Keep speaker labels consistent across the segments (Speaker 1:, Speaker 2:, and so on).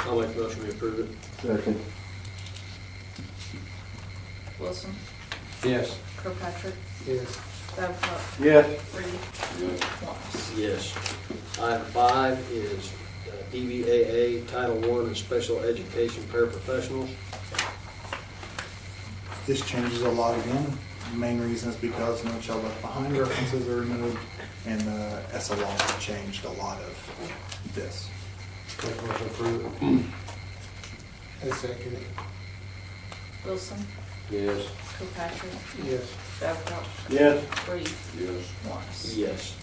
Speaker 1: I'll make a motion to approve it.
Speaker 2: Second.
Speaker 3: Wilson,
Speaker 2: Yes.
Speaker 3: Kirkpatrick,
Speaker 1: Yes.
Speaker 3: Babcock,
Speaker 2: Yes.
Speaker 3: Reed, Wise.
Speaker 1: Yes. Item five is uh, DVAA Title I and Special Education Paraprofessionals.
Speaker 4: This changes a lot again. The Main reason is because no child left behind references are removed and the SLR changed a lot of this.
Speaker 5: Make a motion to approve it. I second it.
Speaker 3: Wilson,
Speaker 2: Yes.
Speaker 3: Kirkpatrick,
Speaker 5: Yes.
Speaker 3: Babcock,
Speaker 2: Yes.
Speaker 3: Reed,
Speaker 2: Yes.
Speaker 3: Wise.
Speaker 1: Yes.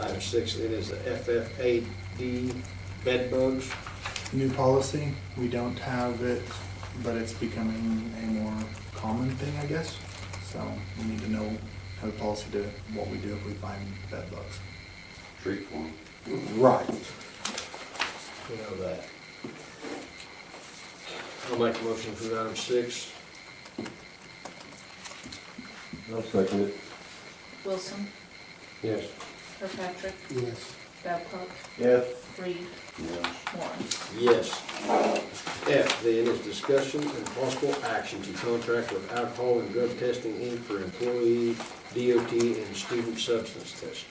Speaker 1: Item six, it is the FFAD bedbugs.
Speaker 4: New policy, we don't have it, but it's becoming a more common thing, I guess. So we need to know, have a policy to what we do if we find bed bugs.
Speaker 2: Treat form.
Speaker 4: Right.
Speaker 1: You know that. I'll make a motion for item six.
Speaker 2: I'll second it.
Speaker 3: Wilson,
Speaker 2: Yes.
Speaker 3: Kirkpatrick,
Speaker 5: Yes.
Speaker 3: Babcock,
Speaker 2: Yes.
Speaker 3: Reed,
Speaker 2: Yes.
Speaker 3: Wise.
Speaker 1: Yes. F then is discussion and possible action to contract with alcohol and drug testing Inc. for employee DOT and student substance test.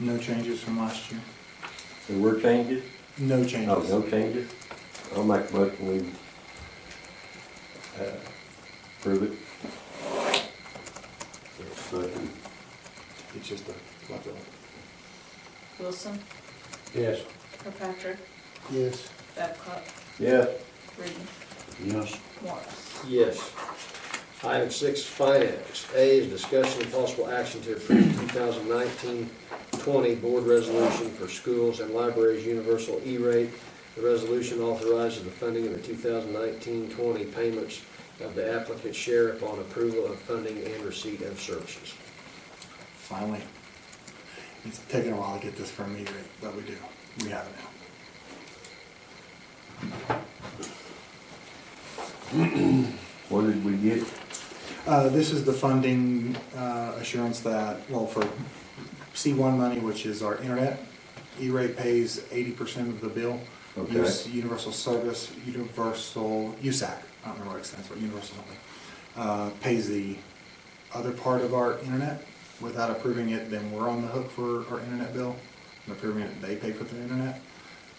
Speaker 4: No changes from last year.
Speaker 6: There were changes?
Speaker 4: No
Speaker 6: No,
Speaker 4: changes.
Speaker 6: Oh, no changes? I'll make a motion, we uh, approve it.
Speaker 2: Second.
Speaker 4: It's just a leftover.
Speaker 3: Wilson,
Speaker 2: Yes.
Speaker 3: Kirkpatrick,
Speaker 5: Yes.
Speaker 3: Babcock,
Speaker 6: Yes.
Speaker 3: Reed,
Speaker 2: Yes.
Speaker 3: Wise.
Speaker 1: Yes. Item six, finance. A is discussion and possible action to approve 2019-20 board resolution for schools and libraries universal E-rate. The resolution authorizes the funding of the 2019-20 payments of the applicant's share upon approval of funding and receipt of services.
Speaker 4: Finally. It's taken a while to get this from me, but we do. We have it now.
Speaker 6: What did we get?
Speaker 4: Uh, this is the funding uh, assurance that, well, for C1 money, which is our internet, E-rate pays 80% of the bill.
Speaker 6: Okay.
Speaker 4: Use- Universal Service, Universal, USAC, I don't remember what it stands for, Universal something, uh, pays the other part of our internet. Without approving it, then we're on the hook for our internet bill. And approving it, they pay for the internet.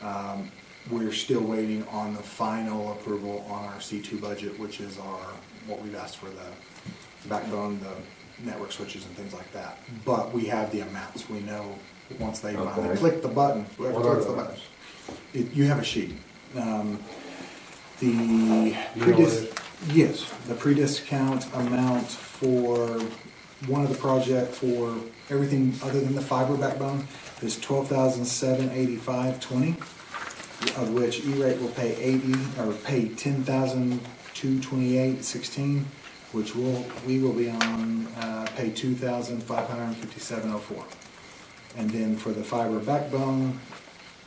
Speaker 4: Um, We're still waiting on the final approval on our C2 budget, which is our, what we've asked for the backbone, the network switches and things like that. But we have the amounts, we know, once they finally
Speaker 6: Okay.
Speaker 4: click the button, whoever
Speaker 2: What are
Speaker 4: clicks the
Speaker 2: those?
Speaker 4: button. It- You have a sheet. Um, The
Speaker 2: You know
Speaker 4: predis,
Speaker 2: it.
Speaker 4: yes, the pre-discount amount for one of the project for everything other than the fiber backbone is twelve thousand seven eighty-five twenty, of which E-rate will pay eighty, or pay ten thousand two twenty-eight sixteen, which will, we will be on, uh, pay two thousand five hundred and fifty-seven oh four. And then for the fiber backbone,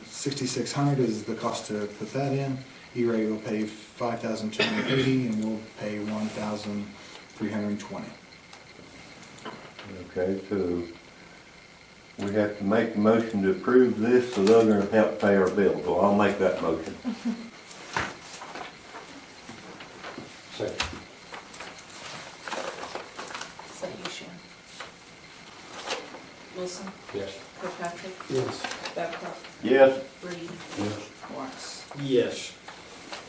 Speaker 4: sixty-six hundred is the cost to put that in. E-rate will pay five thousand two hundred eighty, and we'll pay one thousand three hundred and twenty.
Speaker 6: Okay, so we have to make a motion to approve this, so they're gonna help pay our bill, so I'll make that motion.
Speaker 2: Second.
Speaker 3: Is that you, Sharon? Wilson,
Speaker 2: Yes.
Speaker 3: Kirkpatrick,
Speaker 5: Yes.
Speaker 3: Babcock,
Speaker 6: Yes.
Speaker 3: Reed,
Speaker 2: Yes.
Speaker 3: Wise.
Speaker 1: Yes.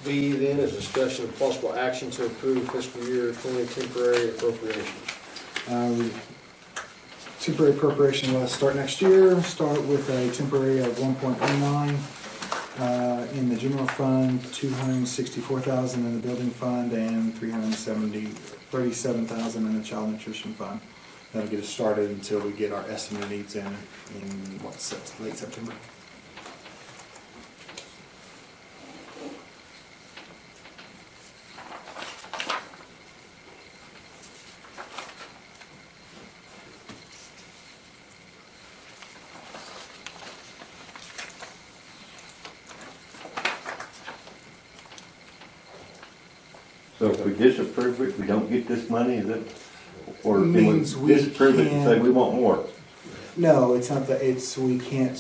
Speaker 1: B then is discussion of possible action to approve fiscal year 20 temporary appropriations.
Speaker 4: Um, Temporary appropriation will start next year, start with a temporary of one point oh nine, uh, in the general fund, two hundred and sixty-four thousand in the building fund, and three hundred and seventy, thirty-seven thousand in the child nutrition fund. That'll get us started until we get our estimate needs in, in what, Sep- late September?
Speaker 6: So if we disapprove it, we don't get this money, is it? Or do we
Speaker 4: Means we
Speaker 6: disapprove it and say
Speaker 4: can-
Speaker 6: we want more?
Speaker 4: No, it's not that, it's, we can't